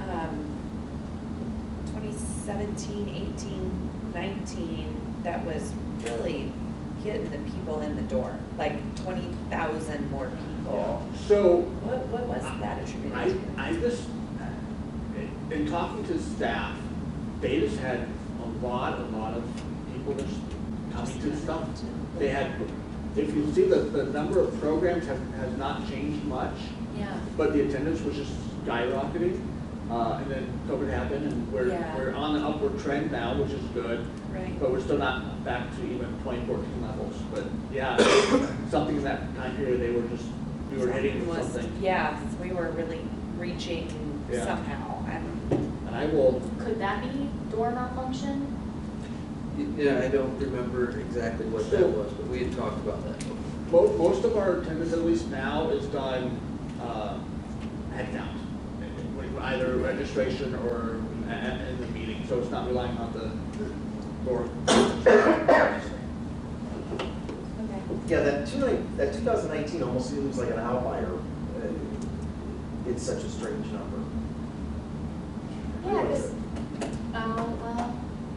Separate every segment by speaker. Speaker 1: Um, 17, 18, 19, that was really getting the people in the door, like 20,000 more people.
Speaker 2: So,
Speaker 1: What, what was that
Speaker 2: I,
Speaker 1: attributed
Speaker 2: I just, in- in talking to staff, they just had a lot, a lot of people just coming to stuff. They had, if you see the, the number of programs have, has not changed much,
Speaker 1: Yeah.
Speaker 2: but the attendance was just skyrocketing. Uh, and then COVID happened and we're,
Speaker 1: Yeah.
Speaker 2: we're on an upward trend now, which is good.
Speaker 1: Right.
Speaker 2: But we're still not back to even twenty fourteen levels, but yeah, something in that time period, they were just, we were hitting
Speaker 1: Something was-
Speaker 2: something.
Speaker 1: Yeah, we were really reaching
Speaker 2: Yeah.
Speaker 1: somehow. I don't know.
Speaker 2: And I will,
Speaker 3: Could that be door malfunction?
Speaker 4: Y- Yeah, I don't remember exactly what that
Speaker 2: So-
Speaker 4: was, but we had talked about that.
Speaker 2: mo- most of our attendance, at least now, is done, uh, headcount. Either registration or a- a- in the meeting, so it's not relying on the door.
Speaker 1: Okay.
Speaker 5: Yeah, that two nine, that two thousand nineteen almost seems like an outlier. Uh, It's such a strange number.
Speaker 3: Yeah, because, oh, well,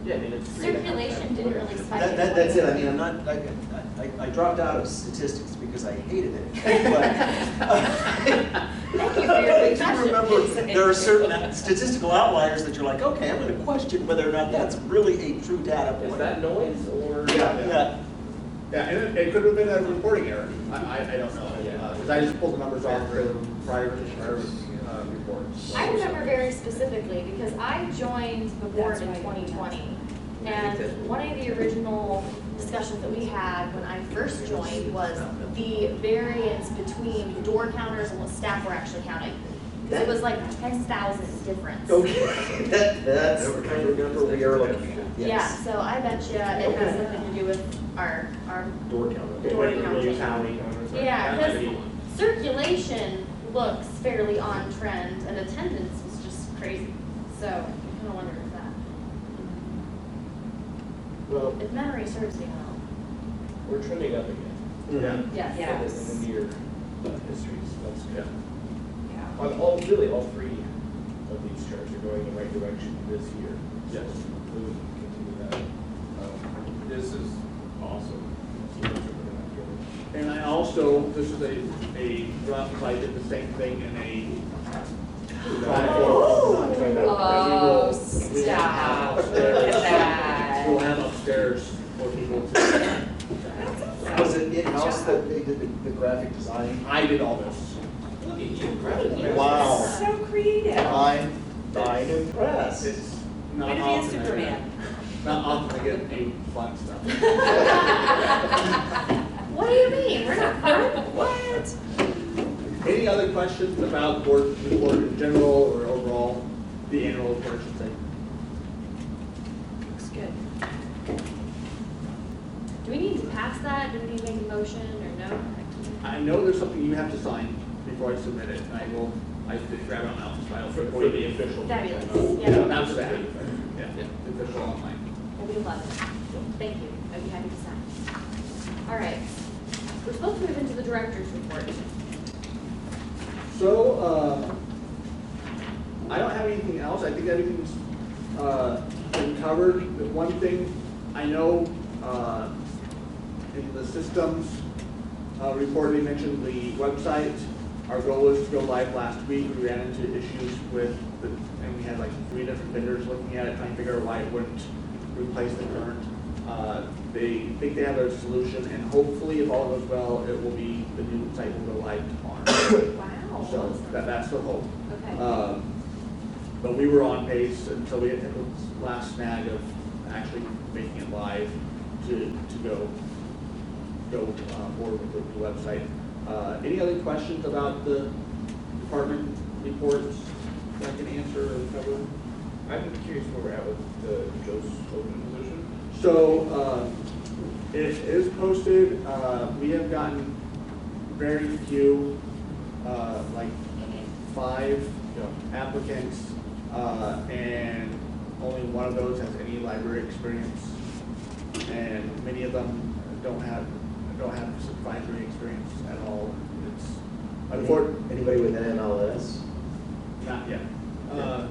Speaker 5: Yeah, I mean, it's three and a half
Speaker 3: circulation
Speaker 5: times
Speaker 3: didn't
Speaker 5: more.
Speaker 3: really spike.
Speaker 5: That, that, that's it, I mean, I'm not, like, I, I dropped out of statistics because I hated it, but.
Speaker 1: Thank you for your
Speaker 5: I do remember,
Speaker 1: confession.
Speaker 5: there are certain statistical outliers that you're like, okay, I'm gonna question whether or not that's really a true data point.
Speaker 4: Is that noise or?
Speaker 2: Yeah.
Speaker 5: Yeah,
Speaker 2: Yeah, and it, it could have been a reporting error, I, I, I don't know,
Speaker 4: Yeah.
Speaker 2: because I just pulled the numbers off the prior, prior, uh, reports.
Speaker 3: I remember very specifically, because I joined the board
Speaker 1: That's
Speaker 3: in
Speaker 1: right.
Speaker 3: twenty twenty.
Speaker 4: I think that's-
Speaker 3: And one of the original discussions that we had when I first joined was the variance between door counters and what staff were actually counting. Because it was like ten thousand difference.
Speaker 5: Oh, okay, that, that's the kind of number we are looking for,
Speaker 3: Yeah,
Speaker 5: yes.
Speaker 3: so I bet you it has something to do with our, our
Speaker 5: Door counter.
Speaker 3: Door counter. Yeah, because circulation looks fairly on trend and attendance was just crazy. So I kind of wonder if that,
Speaker 4: Well,
Speaker 3: if memory serves me well.
Speaker 4: we're trending up again.
Speaker 2: Yeah.
Speaker 3: Yes.
Speaker 1: Yeah.
Speaker 4: In the near uh, history, so that's
Speaker 2: Yeah.
Speaker 4: good.
Speaker 1: Yeah.
Speaker 4: On all, really, all three of these charts are going in the right direction this year.
Speaker 2: Yes.
Speaker 4: So We would continue that. Um, This is awesome. So much of it out here.
Speaker 2: And I also, this is a, a rough, I did the same thing in a.
Speaker 1: Oh,
Speaker 2: We will- we will have
Speaker 1: stop.
Speaker 2: upstairs-
Speaker 1: Look at that.
Speaker 2: We'll have upstairs for people to,
Speaker 5: Was it in-house that they did the, the graphic design?
Speaker 2: I did all this.
Speaker 5: Wow.
Speaker 1: So creative.
Speaker 5: I'm, I'm impressed.
Speaker 2: It's not
Speaker 1: Way to be a
Speaker 2: often, I-
Speaker 1: Superman.
Speaker 2: not often I get any fun stuff.
Speaker 3: What do you mean? We're not fun? What?
Speaker 2: Any other questions about board, the board in general or overall, the annual report, I should say?
Speaker 1: Looks good.
Speaker 3: Do we need to pass that? Do we need to make a motion or no?
Speaker 2: I know there's something you have to sign before I submit it, and I will, I did grab it on Alpha's file for for the official.
Speaker 3: Fabulous.
Speaker 2: Yeah,
Speaker 3: Yeah.
Speaker 2: not for that, yeah, the official online.
Speaker 3: We love it. Thank you. I'd be happy to sign. All right. We're supposed to move into the director's report.
Speaker 2: So, uh, I don't have anything else, I think everything's, uh, been covered. The one thing I know, uh, in the systems, uh, report, they mentioned the website. Our goal was to go live last week, we ran into issues with the, and we had like three different vendors looking at it, trying to figure out why it wouldn't replace the current. Uh, they think they have a solution, and hopefully, if all goes well, it will be, the new site will go live tomorrow.
Speaker 3: Wow.
Speaker 2: So that, that's the hope.
Speaker 3: Okay.
Speaker 2: Um, But we were on pace until we hit the last snag of actually making it live to, to go, go uh, forward with the- the website. Uh, Any other questions about the department reports that I can answer or cover?
Speaker 4: I'm curious where we're at with the Joe's open position.
Speaker 2: So, uh, it is posted, uh, we have gotten very few, uh, like five applicants, uh, and only one of those has any library experience. And many of them don't have, don't have supervisory experience at all, it's, unfortunately,
Speaker 5: Anybody with an MLS?
Speaker 2: not yet. Uh,